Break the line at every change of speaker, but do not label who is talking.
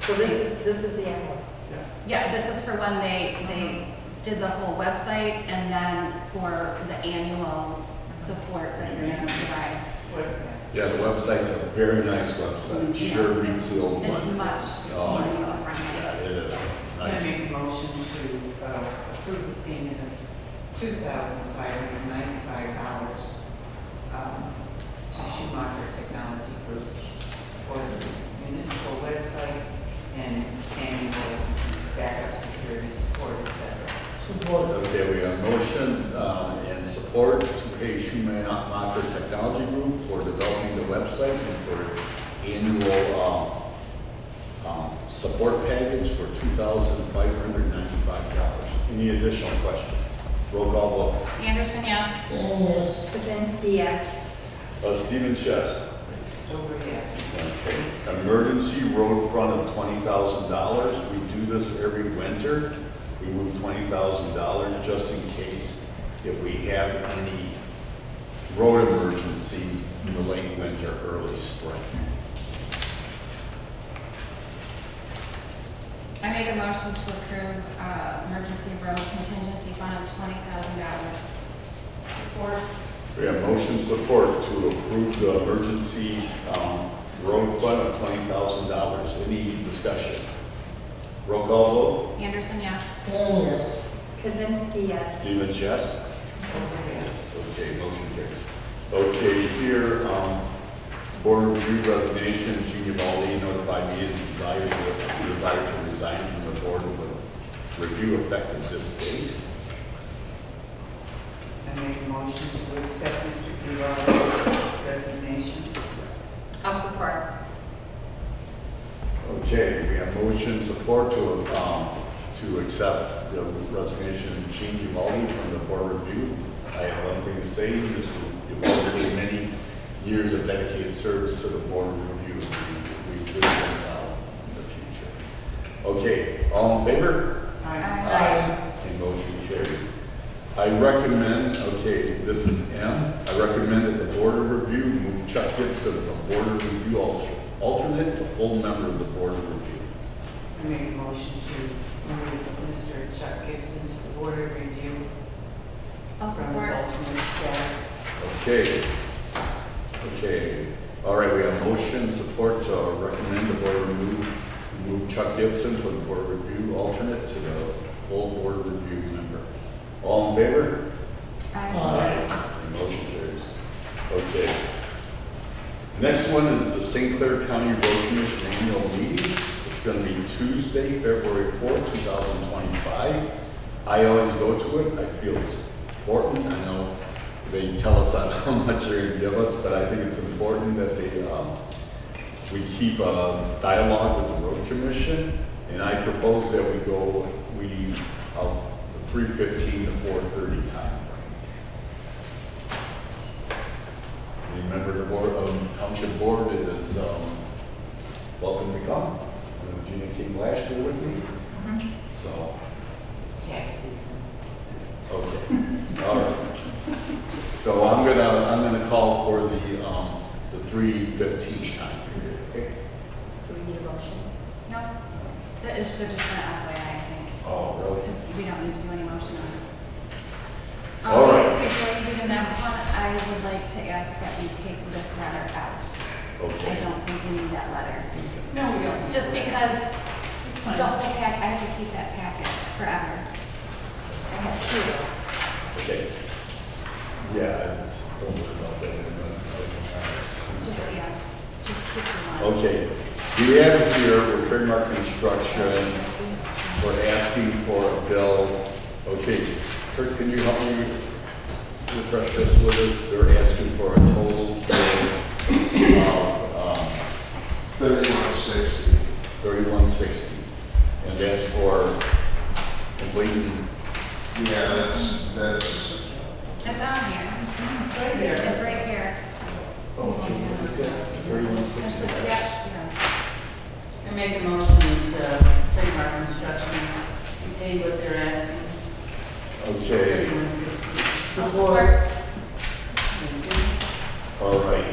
So this is, this is the invoice.
Yeah.
Yeah, this is for when they, they did the whole website and then for the annual support that you're gonna provide.
Yeah, the website's a very nice website, sure beats the old one.
It's much
Oh,
more
my
user
God. Yeah,
friendly.
it is,
I'm gonna
nice.
make a motion to uh, approve the payment of two thousand five hundred ninety-five dollars um, to Schumacher Technology Group for the municipal website and annual backup security support, et cetera.
Okay, we have a motion um, and support to pay Schumacher Technology Group for developing the website and for its annual um, um, support package for $2,595. Any additional questions? Roll call vote.
Anderson, yes?
Kaczynski, yes.
Uh, Stephen Chess.
Stover, yes.
Okay. Emergency road fund of twenty thousand dollars. We do this every winter. We move twenty thousand dollars just in case if we have any road emergencies in the late winter, early spring.
I make a motion to approve, uh, emergency road contingency fund of twenty thousand dollars. Support.
We have motion support to approve the emergency, um, road fund of twenty thousand dollars. Any discussion? Roll call vote.
Anderson, yes?
Kaczynski, yes.
Stephen Chess.
Stover, yes.
Okay, motion carries. Okay, here, um, board review resignation, Gina Baldi notified me of desire to, desire to resign from the board with review effective this date.
I make a motion to accept Mr. Gerard's resignation.
I'll support.
Okay, we have motion support to, um, to accept the resignation of Gene Uvalde from the board review. I have one thing to say, Mr. Uvalde, gave many years of dedicated service to the board review. We we do now in the future. Okay, all in favor?
Aye.
Aye.
Okay, motion carries. I recommend, okay, this is M, I recommend that the board of review move Chuck Gibson from board of review alter- alternate to full member of the board of review.
I make a motion to move Mr. Chuck Gibson to the board of review
I'll
from his
support.
alternate status.
Okay. Okay. All right, we have motion support to recommend the board remove, move Chuck Gibson from the board review alternate to the full board review member. All in favor? The Motion carries. Okay. Next one is the St. Clair County Road Commission annual meeting. It's gonna be Tuesday, February fourth, two thousand twenty-five. I always go to it, I feel it's important, I know they tell us on how much they're gonna give us, but I think it's important that they, um, we keep a dialogue with the road commission, and I propose that we go, we, uh, three fifteen to four thirty timeframe. Any member of the board, um, township board is, um, welcome to come. Uh, Gina came last year with me,
Mm-hmm.
so,
It's tax season.
okay, all right. So I'm gonna, I'm gonna call for the, um, the three fifteen time period, okay?
So we need a motion.
No, that is, should have just been FYI, I think.
Oh, really?
Because we don't need to do any motion on it. Um,
All right.
Before you do the next one, I would like to ask that we take this letter out. I
Okay.
don't think we need that letter.
No, we don't.
Just because
It's
the whole pack, I have to keep that packet forever.
I have two of
Okay. Yeah, I just don't worry about that unless I can.
Just, yeah, just keep the one.
Okay, we have it here, we're trademark construction, we're asking for a bill. Okay, Kurt, can you help me refresh this with us? They're asking for a total bill of um,
Thirty-one sixty.
3160. And that's for completing,
Yeah, that's, that's,
It's on here.
It's right
It's right here.
oh, it's at
That's
3160.
the, yeah, yeah.
I make a motion to trademark construction, and pay what they're asking,
okay,
thirty-one sixty.
I'll support.
all right. um,